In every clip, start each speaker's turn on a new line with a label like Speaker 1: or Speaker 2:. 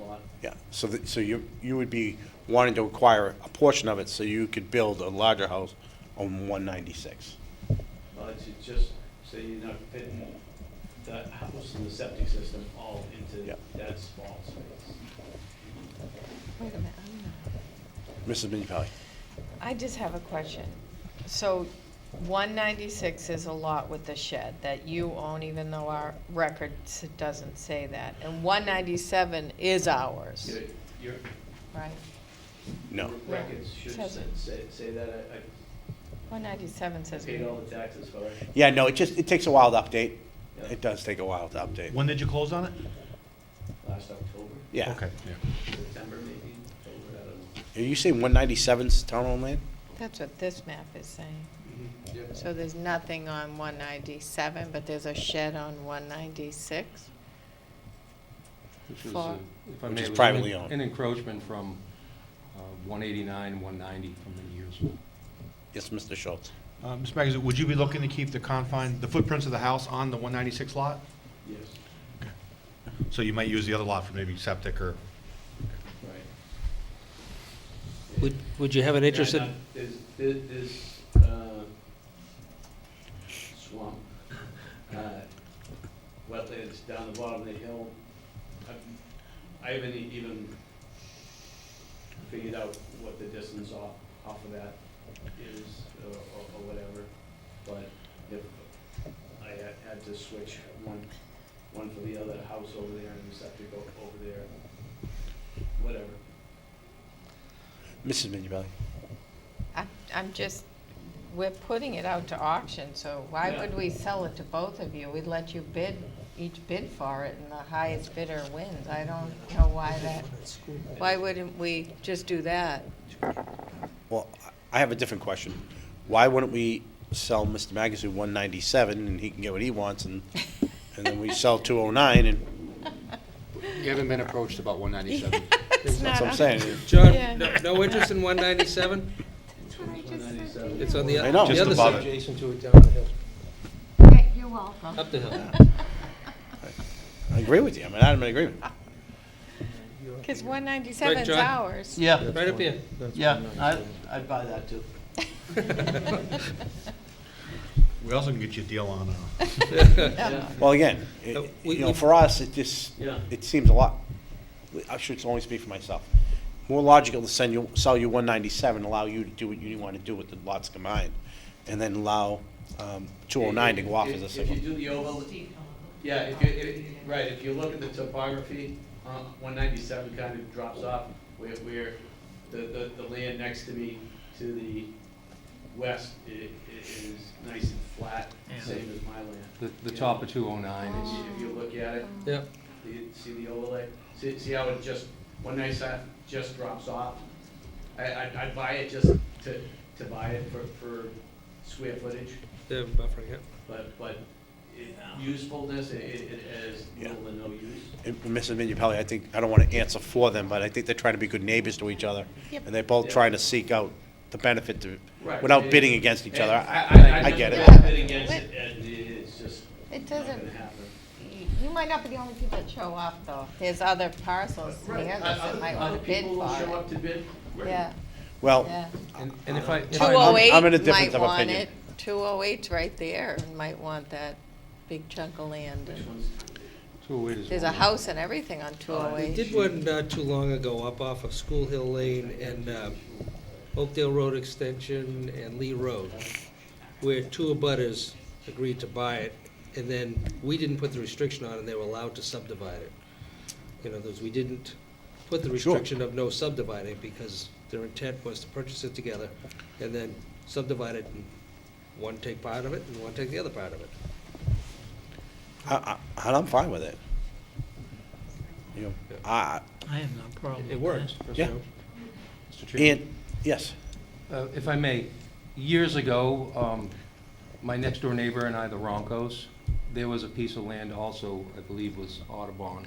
Speaker 1: lot.
Speaker 2: Yeah, so, that- so you, you would be wanting to acquire a portion of it so you could build a larger house on one ninety-six.
Speaker 1: Well, it's it's just, so you're not fitting the house and the septic system all into
Speaker 2: Yeah.
Speaker 1: that small space.
Speaker 3: Wait a minute, I'm not-
Speaker 2: Mrs. Minipelli?
Speaker 3: I just have a question. So one ninety-six is a lot with the shed that you own, even though our record s- doesn't say that. And one ninety-seven is ours,
Speaker 1: Your- Your
Speaker 3: right?
Speaker 2: No.
Speaker 1: records should
Speaker 3: Says it.
Speaker 1: say, say that, I-
Speaker 3: One ninety-seven
Speaker 1: I
Speaker 3: says.
Speaker 1: paid all the taxes for it.
Speaker 2: Yeah, no, it just, it takes a while to update.
Speaker 1: Yeah.
Speaker 2: It does take a while to update.
Speaker 4: When did you close on it?
Speaker 1: Last October,
Speaker 2: Yeah.
Speaker 4: Okay, yeah.
Speaker 1: September maybe, October, I don't know.
Speaker 2: Are you saying one ninety-seven's town-owned land?
Speaker 3: That's what this map is saying.
Speaker 1: Yep.
Speaker 3: So there's nothing on one ninety-seven, but there's a shed on one ninety-six?
Speaker 5: Which was,
Speaker 3: For-
Speaker 5: uh, if I
Speaker 2: Which
Speaker 5: may,
Speaker 2: is
Speaker 5: it was an
Speaker 2: privately
Speaker 5: en-
Speaker 2: owned.
Speaker 5: An encroachment from uh, 189, 190 from the years.
Speaker 2: Yes, Mr. Schultz.
Speaker 4: Uh, Mr. Magazine, would you be looking to keep the confine, the footprints of the house on the 196 lot?
Speaker 1: Yes,
Speaker 4: So you might use the other lot for maybe septic or?
Speaker 1: right.
Speaker 6: Would, would you have an
Speaker 1: Yeah,
Speaker 6: interest in,
Speaker 1: not- There's, there- there's, uh, swamp, uh, wetlands down the bottom of the hill. I'm- I haven't e- even figured out what the distance off, off of that is, or, or or whatever. But if I had- had to switch one, one for the other house over there and the septic o- over there, whatever.
Speaker 2: Mrs. Minipelli?
Speaker 3: I'm, I'm just, we're putting it out to auction, so why
Speaker 1: Yeah.
Speaker 3: would we sell it to both of you? We'd let you bid, each bid for it, and the highest bidder wins. I don't know why that, why wouldn't we just do that?
Speaker 2: Well, I have a different question. Why wouldn't we sell Mr. Magazine one ninety-seven and he can get what he wants and, and then we sell two oh nine and,
Speaker 7: You haven't been approached about 197.
Speaker 3: It's
Speaker 2: that's
Speaker 3: not
Speaker 2: what I'm
Speaker 3: on-
Speaker 2: saying.
Speaker 3: Yeah.
Speaker 6: John, no- no interest in 197?
Speaker 3: That's what I just said to
Speaker 1: 197.
Speaker 3: you.
Speaker 6: It's on the,
Speaker 2: I
Speaker 6: o-
Speaker 2: know.
Speaker 6: Oh, the
Speaker 2: Just
Speaker 6: other
Speaker 4: above
Speaker 6: side.
Speaker 4: it.
Speaker 6: Jason, to it down the hill.
Speaker 3: Yeah, You're welcome.
Speaker 6: Up the hill.
Speaker 2: I agree with you. I'm in adamant agreement.
Speaker 3: Because one ninety-seven's
Speaker 6: John?
Speaker 3: ours.
Speaker 8: Yeah,
Speaker 6: Right up here.
Speaker 8: yeah, I, I'd buy that too.
Speaker 4: We also can get you a deal on, uh,
Speaker 1: Yeah.
Speaker 2: Well, again,
Speaker 6: Uh,
Speaker 2: it-
Speaker 6: we-
Speaker 2: you know,
Speaker 6: we-
Speaker 2: for us, it just,
Speaker 1: Yeah.
Speaker 2: it seems a lot, I should only speak for myself. More logical to send you, sell you one ninety-seven, allow you to do what you want to do with the lots combined, and then allow, um, two oh nine to go off as
Speaker 1: If-
Speaker 2: a
Speaker 1: If you
Speaker 2: single.
Speaker 1: do the oval, yeah, if you, if- right, if you look at the topography, uh, one ninety-seven kind of drops off where, where the, the, the land next to me to the west i- i- is nice and flat, same as my land.
Speaker 5: The, the top of 209
Speaker 1: If
Speaker 5: is,
Speaker 1: you- If you look at it,
Speaker 6: Yeah.
Speaker 1: you see the overlay, see, see how it just, one ninety-seven just drops off? I, I'd, I'd buy it just to, to buy it for, for square footage.
Speaker 6: The buffering, yeah.
Speaker 1: But, but it- usefulness, it, it it has
Speaker 2: Yeah.
Speaker 1: little to no use.
Speaker 2: And Mrs. Minipelli, I think, I don't want to answer for them, but I think they're trying to be good neighbors to each other.
Speaker 3: Yep.
Speaker 2: And they're both
Speaker 1: Yeah.
Speaker 2: trying to seek out the benefit to,
Speaker 1: Right.
Speaker 2: without bidding against each
Speaker 1: And
Speaker 2: other. I get
Speaker 1: never
Speaker 2: it.
Speaker 1: bid against it, and it's just
Speaker 3: It
Speaker 1: not gonna
Speaker 3: doesn't,
Speaker 1: happen.
Speaker 3: y- you might not be the only people that show up, though. There's other parcels
Speaker 1: Right,
Speaker 3: near this
Speaker 1: other-
Speaker 3: that might want to bid
Speaker 1: Other people will show
Speaker 3: for
Speaker 1: up to bid.
Speaker 3: it. Yeah,
Speaker 2: Well,
Speaker 3: yeah.
Speaker 5: and and if I, if
Speaker 3: Two
Speaker 5: I-
Speaker 3: oh
Speaker 2: I'm in a
Speaker 3: eight
Speaker 2: difference
Speaker 3: might
Speaker 2: of
Speaker 3: want
Speaker 2: opinion.
Speaker 3: it, two oh eight's right there, and might want that big chunk of land.
Speaker 1: Which
Speaker 3: and-
Speaker 1: one's,
Speaker 5: 208 is.
Speaker 3: There's a
Speaker 5: one.
Speaker 3: house and everything on two oh
Speaker 6: We
Speaker 3: eight.
Speaker 6: did one not too long ago up off of School Hill Lane and uh, Oakdale Road Extension and Lee Road, where two abutters agreed to buy it, and then we didn't put the restriction on, and they were allowed to subdivide it. In other words, we didn't put the restriction of no subdividing, because their intent was to purchase it together, and then subdivide it, and one take part of it, and one take the other part of it.
Speaker 2: I, I, and I'm fine with it. You know, I,
Speaker 8: I have no problem.
Speaker 5: It works.
Speaker 2: Yeah.
Speaker 5: Mr. Chairman.
Speaker 2: and, yes.
Speaker 5: Uh, If I may, years ago, um, my next-door neighbor and I, the Roncos, there was a piece of land also, I believe was Audubon,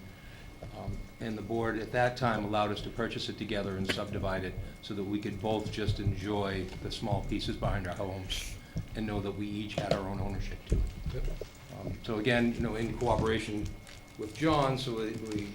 Speaker 5: Um, and the board at that time allowed us to purchase it together and subdivide it so that we could both just enjoy the small pieces behind our homes and know that we each had our own ownership to it. Um, So again, you know, in cooperation with John, so we we